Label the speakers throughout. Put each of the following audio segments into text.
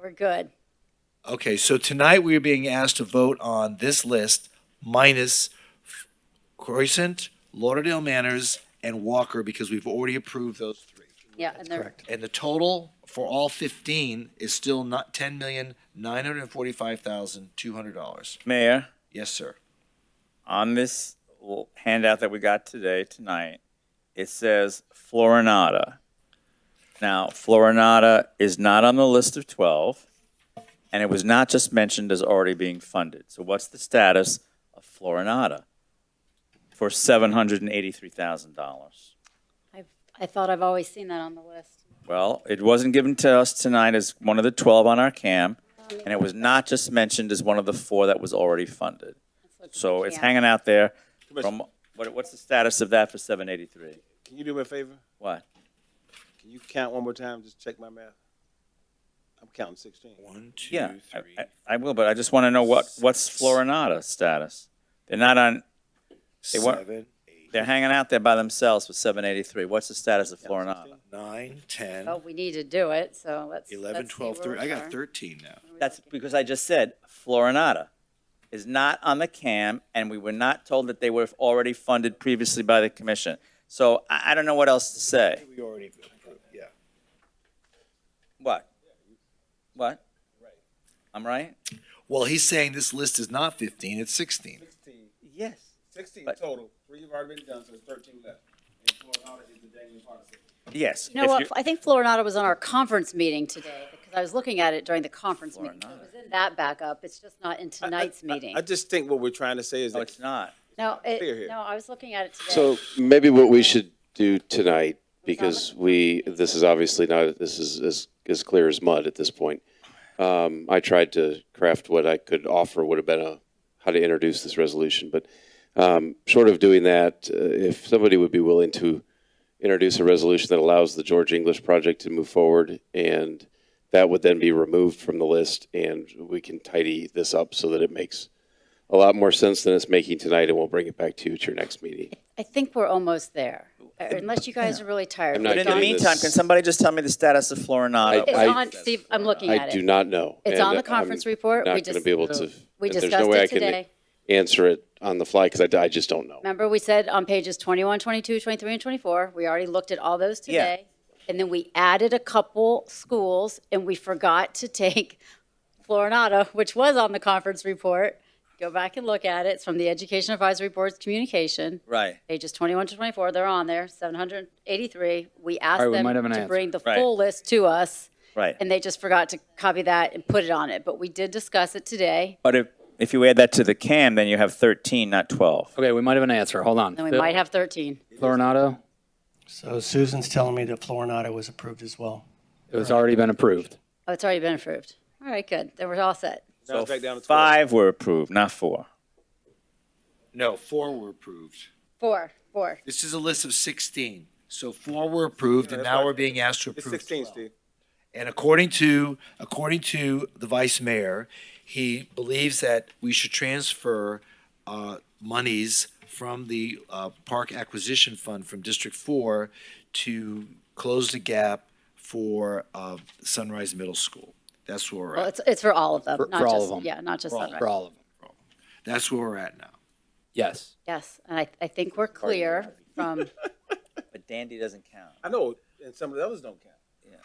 Speaker 1: We're good.
Speaker 2: Okay, so tonight we are being asked to vote on this list minus Croissant, Lauderdale Manors, and Walker because we've already approved those three.
Speaker 1: Yeah, and they're,
Speaker 2: And the total for all fifteen is still not ten million, nine hundred and forty-five thousand, two hundred dollars.
Speaker 3: Mayor,
Speaker 2: Yes, sir.
Speaker 3: on this l- handout that we got today, tonight, it says Florinata. Now, Florinata is not on the list of 12, and it was not just mentioned as already being funded. So what's the status of Florinata for $783,000?
Speaker 1: I've, I thought I've always seen that on the list.
Speaker 3: Well, it wasn't given to us tonight as one of the 12 on our CAM, and it was not just mentioned as one of the four that was already funded. So it's
Speaker 1: Yeah.
Speaker 3: hanging out there
Speaker 4: Commissioner-
Speaker 3: from, what, what's the status of that for 783?
Speaker 4: Can you do me a favor?
Speaker 3: What?
Speaker 4: Can you count one more time? Just check my math. I'm counting sixteen.
Speaker 2: One,
Speaker 3: Yeah,
Speaker 2: two,
Speaker 3: I-
Speaker 2: three.
Speaker 3: I- I will, but I just want to know what, what's Florinata status? They're not on, they weren't,
Speaker 2: Seven,
Speaker 3: they're hanging out there by themselves with 783. What's the status of
Speaker 4: Counting
Speaker 3: Florinata?
Speaker 4: 16?
Speaker 2: nine, ten,
Speaker 1: But we need to do it, so let's.
Speaker 2: eleven,
Speaker 1: let's see
Speaker 2: twelve,
Speaker 1: where
Speaker 2: thirteen.
Speaker 1: we
Speaker 2: I
Speaker 1: are.
Speaker 2: got thirteen now.
Speaker 3: That's because I just said Florinata is not on the CAM, and we were not told that they were already funded previously by the commission. So I, I don't know what else to say.
Speaker 2: We already approved, yeah.
Speaker 3: What? What? I'm right?
Speaker 2: Well, he's saying this list is not fifteen, it's sixteen.
Speaker 4: Sixteen.
Speaker 3: Yes.
Speaker 4: Sixteen
Speaker 3: But-
Speaker 4: total. Three have already been done, so there's thirteen left. And Florida is the dangling part of it.
Speaker 3: Yes.
Speaker 1: You know
Speaker 3: if
Speaker 1: what, I think Florinata was on our conference meeting today, because I was looking at it during the conference meeting. So It was in that backup, it's just not in tonight's
Speaker 4: I-
Speaker 1: meeting.
Speaker 4: I just think what we're trying to say is
Speaker 3: No,
Speaker 4: that
Speaker 3: it's not.
Speaker 1: No,
Speaker 4: Clear here.
Speaker 1: it, no, I was looking at it today.
Speaker 5: So maybe what we should do tonight, because we, this is obviously not, this is as, as clear as mud at this point. Um, I tried to craft what I could offer would have been a, how to introduce this resolution, but, um, short of doing that, uh, if somebody would be willing to introduce a resolution that allows the George English project to move forward and that would then be removed from the list and we can tidy this up so that it makes a lot more sense than it's making tonight and we'll bring it back to you at your next meeting.
Speaker 1: I think we're almost there, unless you guys are really tired.
Speaker 5: I'm
Speaker 3: But
Speaker 5: not
Speaker 3: in the
Speaker 5: getting
Speaker 3: meantime,
Speaker 5: this.
Speaker 3: can somebody just tell me the status of
Speaker 1: It's
Speaker 3: Florinata?
Speaker 5: I-
Speaker 1: on, Steve, I'm looking
Speaker 5: I
Speaker 1: at
Speaker 5: do
Speaker 1: it.
Speaker 5: not know.
Speaker 1: It's
Speaker 5: and
Speaker 1: on the
Speaker 5: I'm
Speaker 1: conference report. We
Speaker 5: Not going to
Speaker 1: just-
Speaker 5: be able to.
Speaker 1: We
Speaker 5: there's no
Speaker 1: discussed
Speaker 5: way I
Speaker 1: it
Speaker 5: can
Speaker 1: today.
Speaker 5: Answer it on the fly because I, I just don't know.
Speaker 1: Remember, we said on pages 21, 22, 23, and 24, we already looked at all those
Speaker 3: Yeah.
Speaker 1: today. And then we added a couple schools, and we forgot to take Florinata, which was on the conference report. Go back and look at it. It's from the Education Advisory Board's communication.
Speaker 3: Right.
Speaker 1: Pages 21 to 24, they're on there, 783. We
Speaker 6: All right,
Speaker 1: asked
Speaker 6: we might have
Speaker 1: them
Speaker 6: an
Speaker 1: to
Speaker 6: answer.
Speaker 1: bring the
Speaker 3: Right.
Speaker 1: full list to us,
Speaker 3: Right.
Speaker 1: and they just forgot to copy that and put it on it. But we did discuss it today,
Speaker 3: But if, if you add that to the CAM, then you have 13, not 12.
Speaker 6: Okay, we might have an answer. Hold on.
Speaker 1: and we might have 13.
Speaker 6: Florinado,
Speaker 7: So Susan's telling me that Florinata was approved as well.
Speaker 6: it was already been approved.
Speaker 1: Oh, it's already been approved. All right, good. Then we're all set.
Speaker 4: now it's back down to twelve.
Speaker 3: Five were approved, not four.
Speaker 2: No, four were approved.
Speaker 1: Four, four.
Speaker 2: This is a list of sixteen. So four were approved and now we're being asked to
Speaker 4: It's
Speaker 2: approve
Speaker 4: sixteen,
Speaker 2: twelve.
Speaker 4: Steve.
Speaker 2: And according to, according to the vice mayor, he believes that we should transfer uh, monies from the uh, Park Acquisition Fund from District Four to close the gap for uh, Sunrise Middle School. That's where we're
Speaker 1: Well,
Speaker 2: at.
Speaker 1: it's, it's for all of them,
Speaker 6: For-
Speaker 1: not
Speaker 6: for all
Speaker 1: just,
Speaker 6: of 'em.
Speaker 1: yeah, not just
Speaker 6: For
Speaker 1: Sunrise.
Speaker 6: all of them.
Speaker 2: That's where we're at now.
Speaker 6: Yes.
Speaker 1: Yes, and I, I think we're clear from,
Speaker 3: But Dandy doesn't count.
Speaker 4: I know, and some of the others don't count.
Speaker 3: Yeah.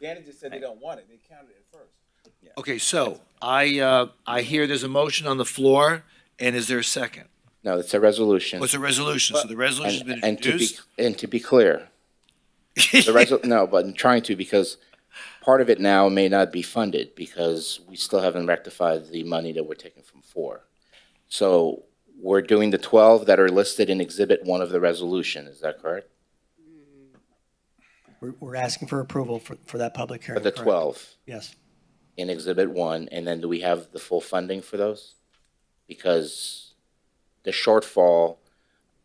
Speaker 4: Danny just said they don't want it. They counted it at first.
Speaker 2: Okay, so I, uh, I hear there's a motion on the floor and is there a second?
Speaker 8: No, it's a resolution.
Speaker 2: What's Oh, a resolution? So the resolution's been
Speaker 8: And and to be,
Speaker 2: introduced?
Speaker 8: and to be clear, the resol, no, but I'm trying to because part of it now may not be funded because we still haven't rectified the money that we're taking from four. So we're doing the 12 that are listed in Exhibit 1 of the resolution, is that correct?
Speaker 7: We're, we're asking for approval for, for that public hearing.
Speaker 8: But the
Speaker 7: correct?
Speaker 8: 12
Speaker 7: Yes.
Speaker 8: in Exhibit 1, and then do we have the full funding for those? Because the shortfall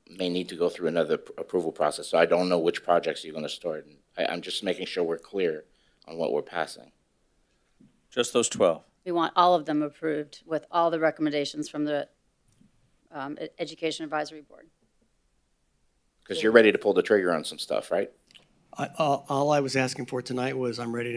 Speaker 8: may need to go through another pr- approval process, so I don't know which projects you're gonna start. And I, I'm just making sure we're clear on what we're passing.
Speaker 3: Just those 12.
Speaker 1: we want all of them approved with all the recommendations from the um, E- Education Advisory Board.
Speaker 8: Because you're ready to pull the trigger on some stuff, right?
Speaker 7: I, all, all I was asking for tonight was I'm ready to